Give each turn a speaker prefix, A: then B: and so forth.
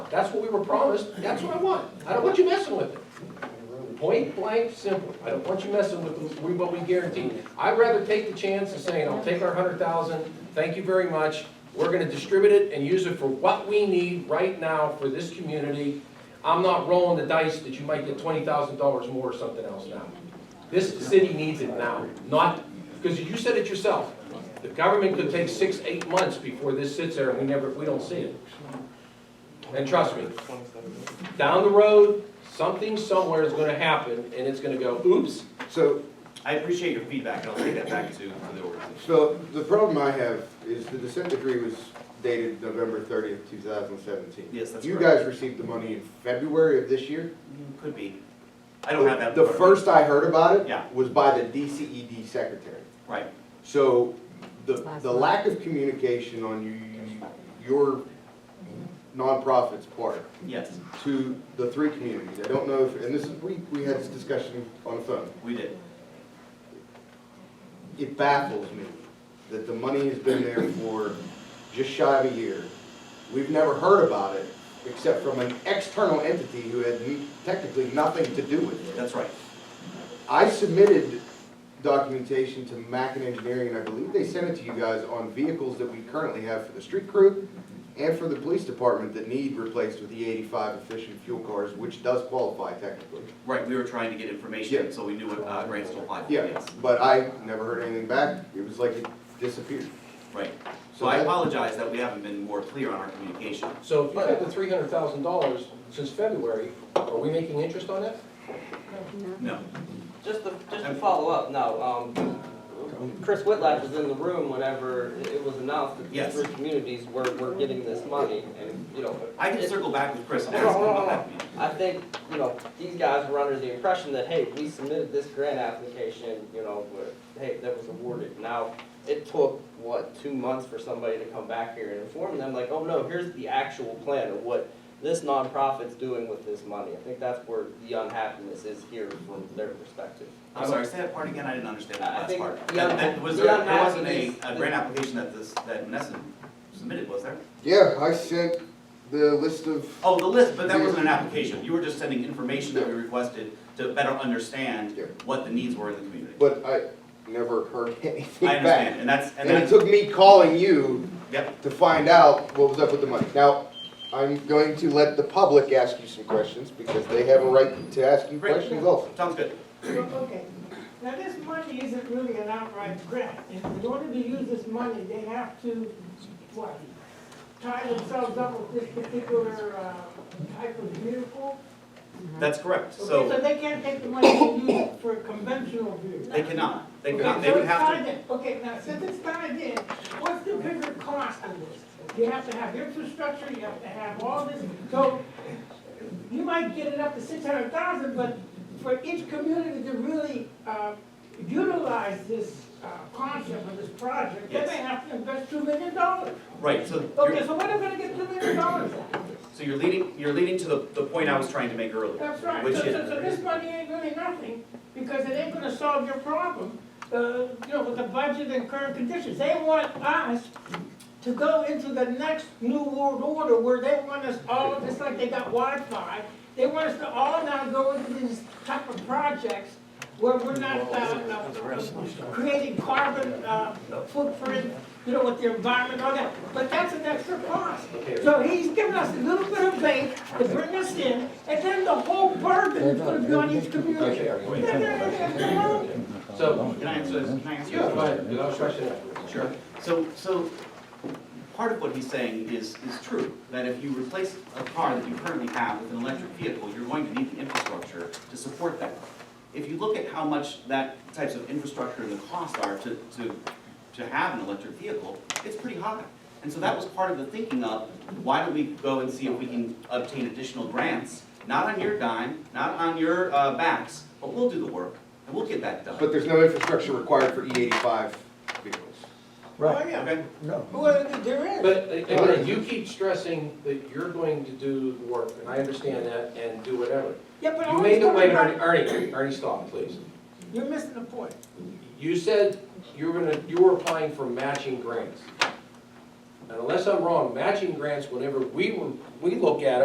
A: That's what we were promised, that's what I want. I don't want you messing with it. Point blank simple. I don't want you messing with we- what we guarantee. I'd rather take the chance of saying, I'll take our hundred thousand, thank you very much. We're gonna distribute it and use it for what we need right now for this community. I'm not rolling the dice that you might get twenty thousand dollars more or something else now. This city needs it now, not, because you said it yourself. The government could take six, eight months before this sits there and we never, we don't see it. And trust me, down the road, something somewhere is gonna happen, and it's gonna go, oops,
B: So,
C: I appreciate your feedback, and I'll take that back to, to the organization.
B: so the problem I have is the dissent decree was dated November thirtieth, two thousand seventeen.
C: Yes, that's
B: You
C: correct.
B: guys received the money in February of this year?
C: Could be. I don't have that.
B: The first I heard about it
C: Yeah.
B: was by the DCED secretary.
C: Right,
B: So the,
D: Last
B: the
D: month.
B: lack of communication on you, your nonprofit's part
C: yes,
B: to the three communities, I don't know if, and this is, we, we had this discussion on the phone.
C: we did.
B: It baffles me that the money has been there for just shy of a year. We've never heard about it, except from an external entity who had technically nothing to do with it.
C: That's right.
B: I submitted documentation to Mackin Engineering, and I believe they sent it to you guys on vehicles that we currently have for the street crew and for the police department that need replaced with the eighty-five efficient fuel cars, which does qualify technically.
C: Right, we were trying to get information,
B: Yeah.
C: so we knew what, uh, grants to apply for,
B: Yeah,
C: yes,
B: but I never heard anything back. It was like it disappeared.
C: right. So
B: So
C: I
B: that-
C: apologize that we haven't been more clear on our communication.
A: so if you got the three hundred thousand dollars since February, are we making interest on that?
C: No,
E: Just to, just to follow up, no, um, Chris Whitlatch was in the room whenever it- it was announced that
C: Yes.
E: these three communities were, were getting this money, and, you know,
C: I can circle back with Chris. on
E: Hold on, hold on, hold on.
C: that meeting.
E: I think, you know, these guys were under the impression that, hey, we submitted this grant application, you know, but, hey, that was awarded. Now, it took, what, two months for somebody to come back here and inform them, like, oh, no, here's the actual plan of what this nonprofit's doing with this money. I think that's where the unhappiness is here from their perspective.
C: I'm sorry, say that part again, I didn't understand
E: I
C: that last
E: think
C: part.
E: the
C: That-
E: un-
C: that- Was
E: the
C: there, there wasn't a,
E: unhappiness-
C: a grant application that this, that Nessun submitted, was there?
B: Yeah, I sent the list of,
C: Oh, the list, but that wasn't an application, you were just sending information that we requested to better understand
B: Yeah.
C: what the needs were in the community.
B: but I never heard anything
C: I understand,
B: back.
C: and that's, and
B: And it
C: that's,
B: took me calling you
C: yep,
B: to find out what was up with the money. Now, I'm going to let the public ask you some questions because they have a right to ask you
C: Great.
B: questions also.
C: sounds good.
E: Mm-hmm.
F: Okay, now this money isn't really an outright grant. In order to use this money, they have to, what? Tie themselves up with this particular, uh, type of vehicle?
C: That's correct,
F: Okay,
C: so
F: So they can't take the money and use it for a conventional vehicle?
C: they cannot, they
F: Okay,
C: cannot, they
F: so
C: would
F: it's
C: have
F: tied
C: to,
F: in. Okay, now, since it's tied in, what's the bigger cost of this? You have to have infrastructure, you have to have all this, so you might get it up to six hundred thousand, but for each community to really, uh, utilize this, uh, concept of this project, they may
C: Yes.
F: have to invest two million dollars.
C: right, so
F: Okay,
C: you're,
F: so what are we gonna get two million dollars out of this?
C: so you're leading, you're leading to the, the point I was trying to make earlier.
F: That's right, so,
C: Which
F: so, so
C: is,
F: this money ain't really nothing, because it ain't gonna solve your problem, uh, you know, with the budget and current conditions. They want us to go into the next new world order where they want us all, just like they got Wi-Fi, they want us to all now go into these type of projects where we're not, uh, uh, creating carbon, uh, footprint, you know, with the environment, all that, but that's an extra cost. So he's giving us a little bit of bait to bring us in, and then the whole burden is gonna be on each community.
A: So,
C: can I answer this, can I answer this?
A: yeah, go ahead, without question.
C: Sure. So, so part of what he's saying is, is true, that if you replace a car that you currently have with an electric vehicle, you're going to need the infrastructure to support that. If you look at how much that types of infrastructure and the cost are to, to, to have an electric vehicle, it's pretty high. And so that was part of the thinking of, why don't we go and see if we can obtain additional grants? Not on your dime, not on your uh, backs, but we'll do the work, and we'll get that done.
B: But there's no infrastructure required for E eighty-five vehicles.
F: Oh, yeah,
C: Okay?
G: No.
F: well, there is.
A: But uh, again, you keep stressing that you're going to do the work, and I understand that, and do whatever.
F: Yeah, but I
A: You
F: always
A: made the
F: talk
A: way,
F: about-
A: Ernie, Ernie, Ernie, stop, please.
F: You're missing the point.
A: You said you were gonna, you were applying for matching grants. And unless I'm wrong, matching grants, whenever we, were- we look at it.